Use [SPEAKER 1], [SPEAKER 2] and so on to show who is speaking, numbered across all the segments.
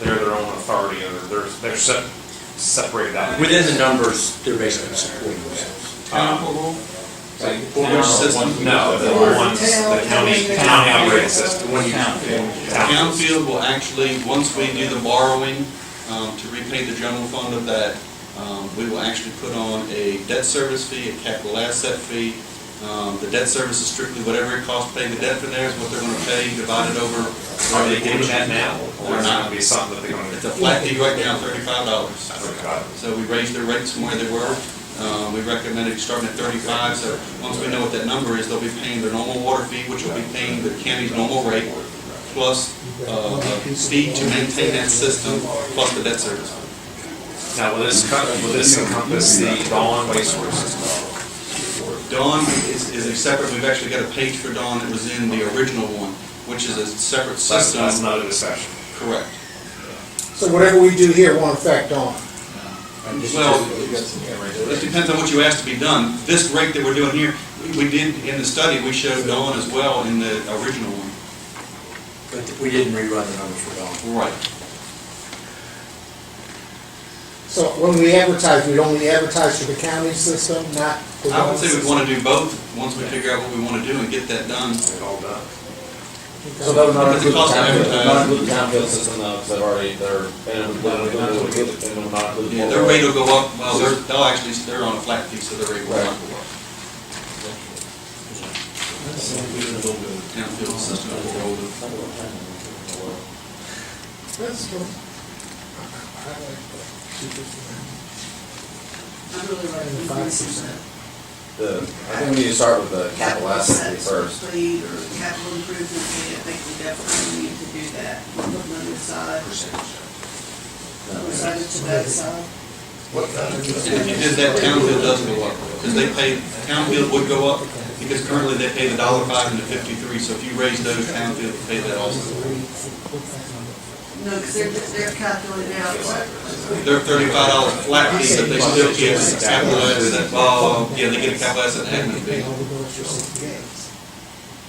[SPEAKER 1] they're their own authority, and they're, they're se- separated out. Uh,
[SPEAKER 2] Within the numbers, they're basically supporting themselves.
[SPEAKER 3] Border system.
[SPEAKER 1] No, the ones, the county, county operating system.
[SPEAKER 3] One county. Townfield will actually, once we do the borrowing um, to repay the general fund of that, um, we will actually put on a debt service fee, a capital asset fee. Um, The debt service is strictly whatever it costs to pay the debt for there is what they're going to pay divided over.
[SPEAKER 1] Are they doing that now, or is it gonna be something that they're
[SPEAKER 3] It's a
[SPEAKER 1] gonna?
[SPEAKER 3] flat fee right now, thirty-five dollars.
[SPEAKER 1] Okay.
[SPEAKER 3] So we raised their rates from where they were. Uh, We recommended starting at 35, so once we know what that number is, they'll be paying their normal water fee, which will be paying the county's normal rate, plus uh, a fee to maintain that system, plus the debt service.
[SPEAKER 1] Now, will this, cut- will this encompass the Dawn wastewater system?
[SPEAKER 3] Dawn is is a separate, we've actually got a page for Dawn that was in the original one, which is a separate
[SPEAKER 1] That's, that's
[SPEAKER 3] system.
[SPEAKER 1] not a discussion.
[SPEAKER 3] Correct.
[SPEAKER 4] So whatever we do here won't affect on.
[SPEAKER 3] Well, It depends on what you ask to be done. This rate that we're doing here, we- we did, in the study, we showed Dawn as well in the original one.
[SPEAKER 2] But we didn't rerun the numbers for Dawn.
[SPEAKER 3] Right.
[SPEAKER 4] So when we advertise, we'd only advertise for the county system, not the
[SPEAKER 3] I would
[SPEAKER 4] Dawn
[SPEAKER 3] say we
[SPEAKER 4] system?
[SPEAKER 3] want to do both, once we figure out what we want to do and get that done.
[SPEAKER 1] It's all done.
[SPEAKER 4] So
[SPEAKER 5] that would
[SPEAKER 3] not include the town-
[SPEAKER 5] They're not included the townfield system though, because they've already, they're, and it would not include, and it would not include.
[SPEAKER 3] Yeah, Their rate will go up, well, they're, they'll actually, they're on a flat fee, so their rate will not go up. Townfield system will go with-
[SPEAKER 4] That's cool.
[SPEAKER 6] I'm really running with this.
[SPEAKER 5] The, I think we need to start with the capital asset fee first.
[SPEAKER 6] Please, or capital improvement fee, I think we definitely need to do that, on the other side, on the side to that side.
[SPEAKER 3] If you did that, townfield does go up, because they pay, townfield would go up, because currently they pay the dollar five and the fifty-three, so if you raise those, townfield will pay that also.
[SPEAKER 6] No, because they're, they're calculating out what,
[SPEAKER 3] They're thirty-five dollar flat fee, but they still get a capital asset, well, yeah, they get a capital asset and admin fee.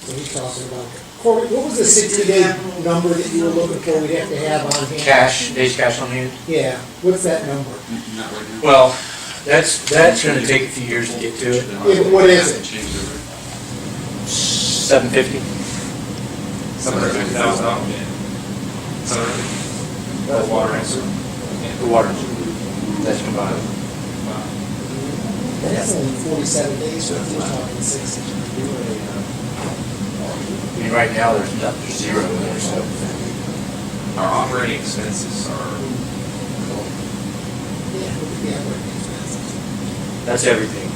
[SPEAKER 4] So he's talking about, Corbett, what was the sixty-day number that you were looking for we'd have to have on hand?
[SPEAKER 2] Cash, days cash on hand?
[SPEAKER 4] Yeah, what's that number?
[SPEAKER 3] Not right now.
[SPEAKER 2] Well, that's, that's gonna take a few years to get to it.
[SPEAKER 4] Yeah, what is it?
[SPEAKER 3] Change the rate.
[SPEAKER 2] Seven fifty?
[SPEAKER 1] Seven hundred fifty thousand dollars. Seven hundred fifty. That's water and sewer.
[SPEAKER 2] The water. That's combined.
[SPEAKER 4] That's only forty-seven days, so we're talking sixty. uh,
[SPEAKER 2] I mean, right now, there's nothing, there's zero in there, so.
[SPEAKER 1] Our operating expenses are
[SPEAKER 4] Yeah, yeah, we're-
[SPEAKER 2] That's everything.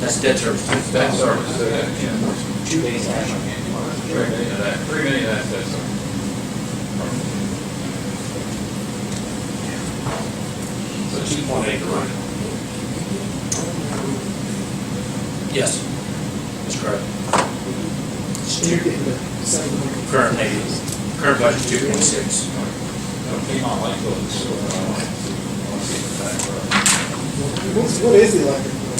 [SPEAKER 2] That's debt service.
[SPEAKER 5] Debt service, so that, yeah.
[SPEAKER 2] Two days cash on hand.
[SPEAKER 5] Three million of that, three million of that debt service.
[SPEAKER 1] So two point eight to run.
[SPEAKER 2] Yes. That's correct. It's
[SPEAKER 4] You
[SPEAKER 2] two,
[SPEAKER 4] get the same number.
[SPEAKER 2] current days, current budget two point six.
[SPEAKER 4] What's, what is the electric bill?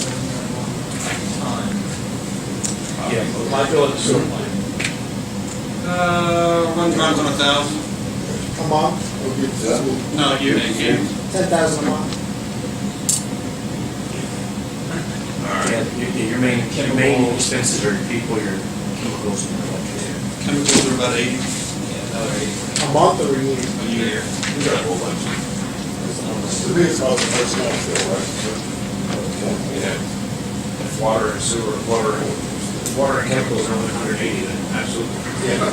[SPEAKER 2] Yeah.
[SPEAKER 5] My uh, bill is sewer line.
[SPEAKER 3] Uh, runs around on a thousand.
[SPEAKER 4] A month,
[SPEAKER 3] No, you, you.
[SPEAKER 4] ten thousand a month?
[SPEAKER 2] Yeah, your, your main, your main expenses are your people, your chemicals and your electricity.
[SPEAKER 3] Chemicals are about eighty
[SPEAKER 4] A month or a year?
[SPEAKER 3] a year.
[SPEAKER 1] If water and sewer, water, and- water and chemicals are only hundred eighty, then absolutely.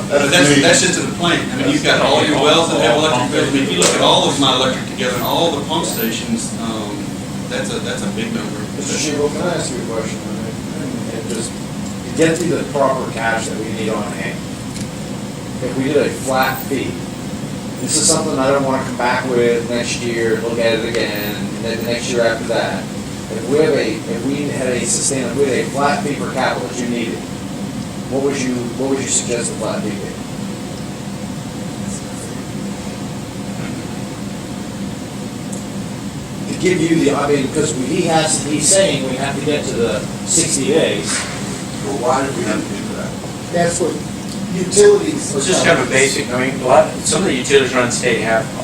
[SPEAKER 3] But that's, that's just in the plant. I mean, you've got all your wells that have electric bills. I mean, if you look at all of my electric together, and all the pump stations, um, that's a, that's a big number.
[SPEAKER 5] Mr. Shebel, can I ask you a question? And just, to get to the proper cash that we need on hand, if we did a flat fee, this is something I don't wanna come back with next year, look at it again, and then the next year after that. If we have a, if we had a sustain, if we had a flat fee per capita that you needed, what would you, what would you suggest the flat fee be? to give you the, I mean, because he has, he's saying we have to get to the sixty days. Well, why did we have to do that?
[SPEAKER 4] That's what utilities.
[SPEAKER 2] Let's just have a basic, I mean, a lot, some of the utilities around the state have